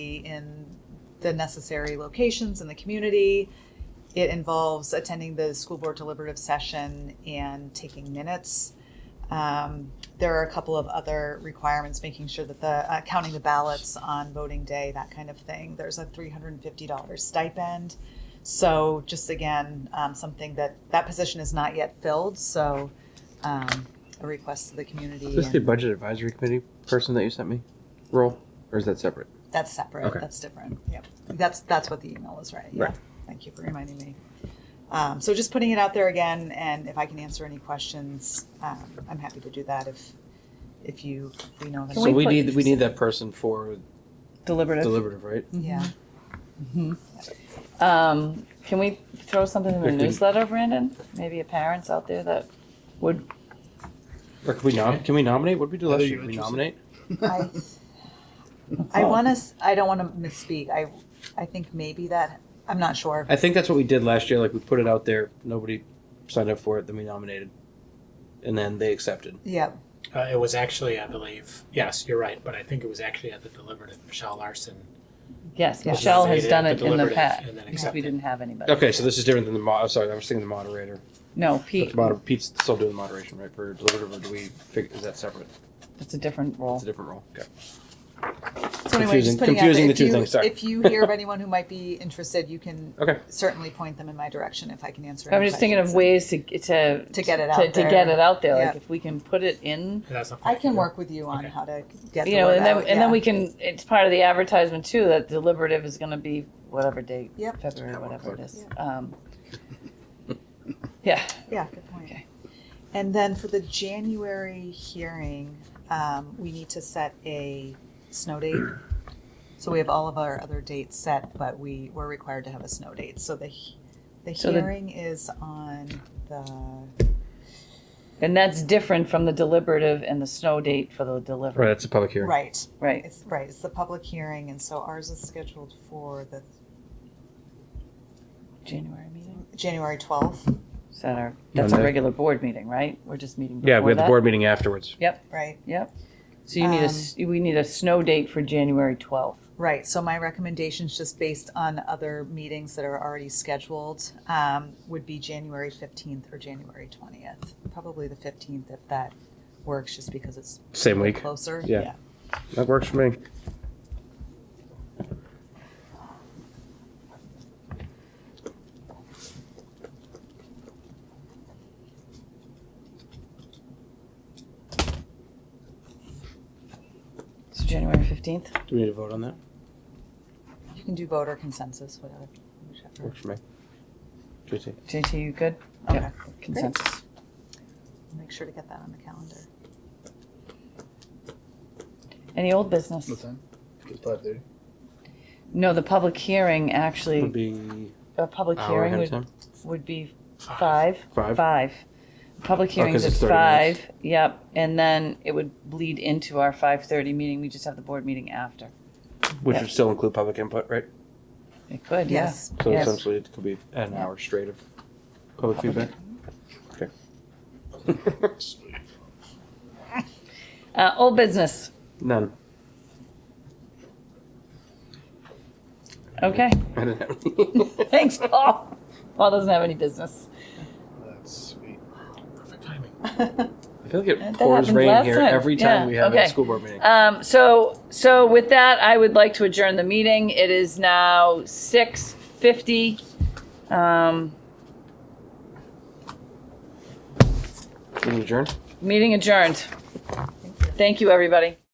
in the necessary locations in the community. It involves attending the school board deliberative session and taking minutes. Um, there are a couple of other requirements, making sure that the, uh, counting the ballots on voting day, that kind of thing. There's a three hundred and fifty dollar stipend. So just again, um, something that, that position is not yet filled, so, um, a request to the community. Is this and- the budget advisory committee person that you sent me role, or is that separate? That's separate, Okay. that's different, yep. That's, that's what the email is, right? Yeah. Right. Thank you for reminding me. Um, so just putting it out there again, and if I can answer any questions, um, I'm happy to do that if, if you, if we know. that- Can so we, we put- need we need that person for deliberative. deliberative, right? Yeah, Um, can we throw something in the If we- newsletter, Brandon? Maybe a parents out there that would. Or can we nom- can we nominate? What did we do Heather, last you year? Did we interested? nominate? I, Oh. I wanna, s- I don't wanna misspeak, I, I think maybe that, I'm not sure. I think that's what we did last year. Like we put it out there, nobody signed up for it, then we nominated, and then they accepted. Yep, Uh, it was actually, I believe, yes, you're right, but I think it was actually at the deliberative. Michelle Larson. Yes, Yes. Michelle has nominated done at it in the deliberative past. And then because We accepted. didn't have anybody. Okay, so this is different than the mo- oh, sorry, I was thinking the moderator. No, But Pete, the moder- Pete's still doing the moderation, right? For deliberative, or do we? Fig- is that separate? it's a different It's role. a different role. Okay. so anyway, just Confusing- putting out, confusing the if two you, things, sorry. if you hear of anyone who might be interested, you can Okay. certainly point them in my direction if I can answer any I'm just thinking of questions. ways to, to. To get it out to- To get there. it out there, like Yeah. if we can put it in, And that's not I can work with you on Okay. how to get you the know, word and then, out, and then yeah. we can, it's part of the advertisement too, that deliberative is gonna be whatever date. Yep. February, Yeah, one whatever it o'clock. is. Um, Yeah, Yeah, good point. Okay. And then for the January hearing, um, we need to set a snow date. So we have all of our other dates set, but we were required to have a snow date. So the, he- the So the- hearing is on the, and that's different from the deliberative and the snow date for the Right. deliberative, That's a public hearing. right, right? it's, right, it's the public hearing, and so ours is scheduled for the January meeting? January twelfth, Is that our, that's our Monday. regular board meeting, right? We're just meeting before Yeah, we have the that? board meeting afterwards. right? So you need a, s- we need a snow date for January 12th. Right, so my recommendations, just based on other meetings that are already scheduled, um, would be January fifteenth or January twentieth. Probably the fifteenth if that works, just because it's Same week. closer. Yeah. That works for me. So January 15th? Do we need to vote on that? You can do voter consensus, whatever. whichever. Works for me. JT. JT, you good? Okay. Yeah, Consensus. Make sure to get that on the calendar. Any old business? What time? It's five thirty. No, the public hearing actually, be Oh, a public hour hearing ahead of would, time. would be Five. five. Five. Oh, Five. Public hearings 'cause at it's 30 minutes. five, yep, and then it would bleed into our 5:30 meeting. We just have the board meeting after. Which Yeah. would still include public input, right? It could, yeah. Yes, So Yes. essentially, it could be an hour straight of public feedback. Okay. Uh, Old business. None. Okay, I didn't have any. thanks, Paul. Paul doesn't have any business. That's sweet. Perfect timing. I feel like it That pours happened rain last here time. every time Yeah, we have okay. a school board meeting. Um, so, so with that, I would like to adjourn the meeting. It is now six fifty. Um, Meeting adjourned. meeting adjourned. Thank you, everybody.